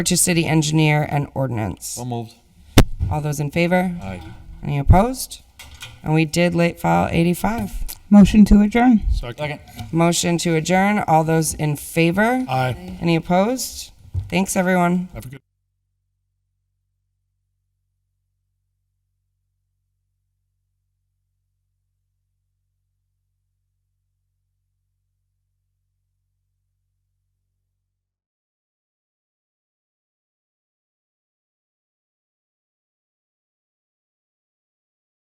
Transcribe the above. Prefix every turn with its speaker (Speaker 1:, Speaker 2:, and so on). Speaker 1: to city engineer and ordinance.
Speaker 2: So moved.
Speaker 1: All those in favor?
Speaker 2: Aye.
Speaker 1: Any opposed? And we did late file 85.
Speaker 3: Motion to adjourn.
Speaker 2: Second.
Speaker 1: Motion to adjourn. All those in favor?
Speaker 4: Aye.
Speaker 1: Any opposed? Thanks, everyone.
Speaker 4: Have a good.